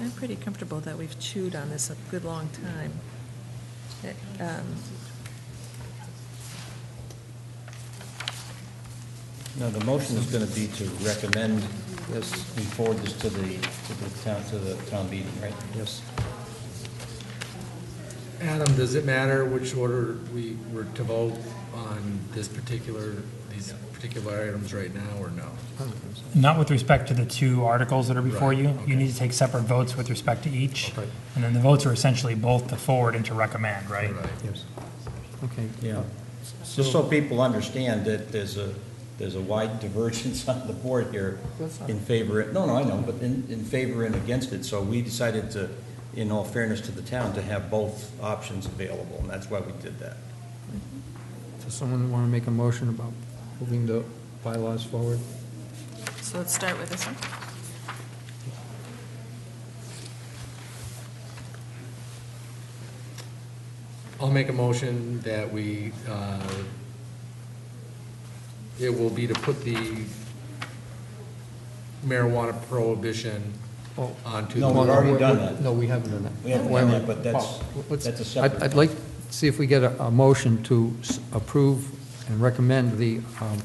I'm pretty comfortable that we've chewed on this a good long time. It, Uh, um, No, the motion is going to be to recommend this, we forward this to the, to the town, to the town meeting, right? Yes. Adam, does it matter which order we were to vote on this particular, these particular items right now, or no? Not with respect to the two articles that are before Right, you. okay. You need to take separate votes with respect to each. Okay. And then the votes are essentially both to forward and to recommend, right? Right. Yes. Okay. Yeah. Just so people understand that there's a, there's a wide divergence on the board here in favor, no, no, I know, but in, in favor and against it. So we decided to, in all fairness to the town, to have both options available, and that's why we did that. Does someone want to make a motion about moving the bylaws forward? So let's start with this one. I'll make a motion that we, uh, it will be to put the marijuana prohibition Oh. onto No, the we've Well, already we're- done we're- that. No, we haven't done that. We haven't done that, but that's, Well, let's- that's a I'd- separate. I'd like, to see if we get a, a motion to s- approve and recommend the um,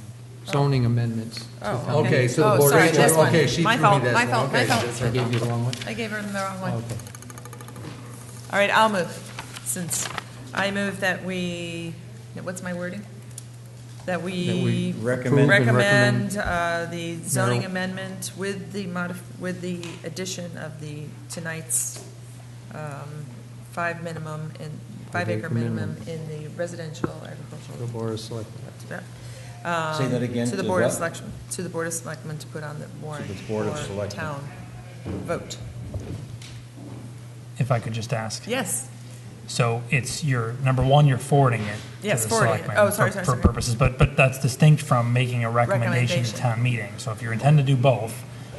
zoning amendments. to Oh, town Okay, meeting. so the Oh, board. sorry, Rachel, this one. Okay, she My threw me fault, this my one. fault, my Okay, fault. that's I her gave you the wrong one? I gave her the wrong one. Oh, All Okay. right, I'll move, since I move that we, what's my wording? That That we we Recommend. recommend uh, the zoning Marijuana. amendment with the modif, with the addition of the, tonight's um, five minimum in, five acre Five-acre minimum. minimum in the residential The agricultural. board of selectmen. Say that um, again, To the to Board of what? Selection, to the Board of Selectmen to put on the warrant the Board of for Selectmen. town vote. If I could just ask. Yes. So it's your, number one, you're forwarding it. to Yes, the forwarding it. selectmen Oh, sorry, for- sorry, sorry. For purposes, but, but that's distinct from making a recommendation to Recommendation. town meeting. So if you intend to do both,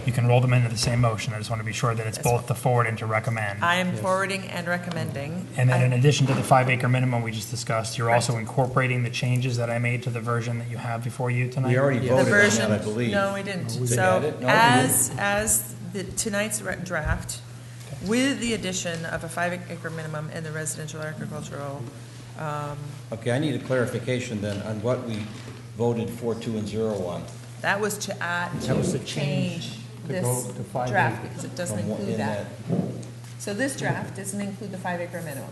you can roll them into the same motion. I just want to be sure that it's That's both to forward and to recommend. I am forwarding and recommending. And then in I- addition to the five acre minimum we just discussed, you're also Correct. incorporating the changes that I made to the version that you have before you tonight? We already The voted on that, version, I believe. no, we didn't. Oh, we didn't. So No, we as, as the, tonight's re- draft, with the addition of a five acre minimum in the residential agricultural, Okay, I need a clarification then on what we voted four, two, and zero on. that was to add, That was to to change, change to this go to five draft, acre. because it doesn't from what- in include that. So this draft doesn't include the five acre minimum.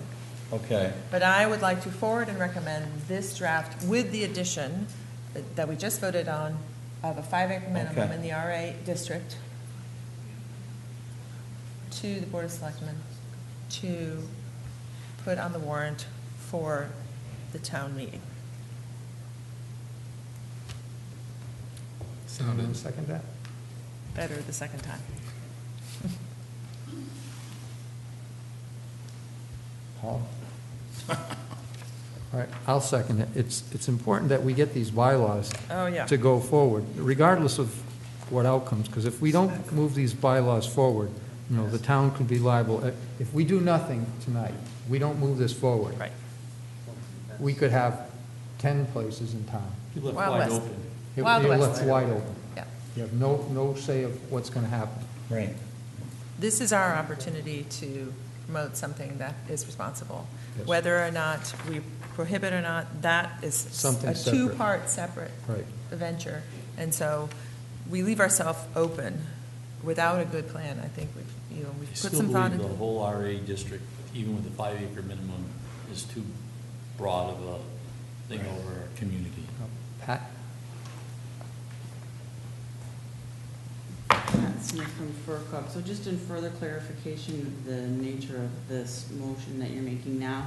that. Okay, But I would like to forward and recommend this draft with the addition that- that we just voted on of a five acre minimum Okay. in the RA district to the Board of Selectmen to put on the warrant for the town meeting. Anyone Sounded Second that? Better the second time. Paul? All right, I'll second it. It's, it's important that we get these bylaws Oh, yeah. to go forward, regardless of what outcomes, because if we don't move these bylaws forward, you know, the town could be liable. Uh, If we do nothing tonight, we don't move this forward. Right. We could have 10 places in town. Wild West. It- Wild You're West. left wide open. Yeah. You have no, no say of what's going to happen. Right. This is our opportunity to promote something that is responsible. Yes. Whether or not we prohibit or not, that is Something a separate. two-part separate Right. venture. And so we leave ourselves open without a good plan. I think we've, you know, we've I put still some thought believe the into. whole RA district, even with the five acre minimum, is too broad of a thing over our community. Pat? Pat Smith from FurCog. So just in further clarification of the nature of this motion that you're making now,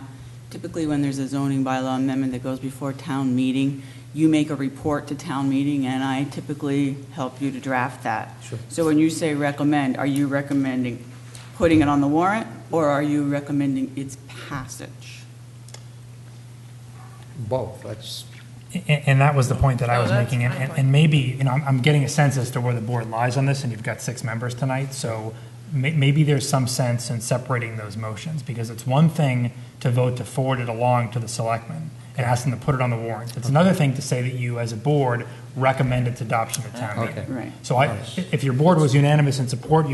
typically when there's a zoning bylaw amendment that goes before town meeting, you make a report to town meeting, and I typically help you to draft that. Sure. So when you say recommend, are you recommending putting it on the warrant, or are you recommending its passage? Both, that's, A- And that was the point that I Oh, was that's making. and- my And point. and maybe, you know, I'm- I'm getting a sense as to where the board lies on this, and you've got six members tonight, so may- maybe there's some sense in separating those motions, because it's one thing to vote to forward it along to the selectmen and ask them to put it on the warrant. It's another thing to say that you, as a board, recommend its adoption at town meeting. Okay. Right. So I, if your board was unanimous in support, you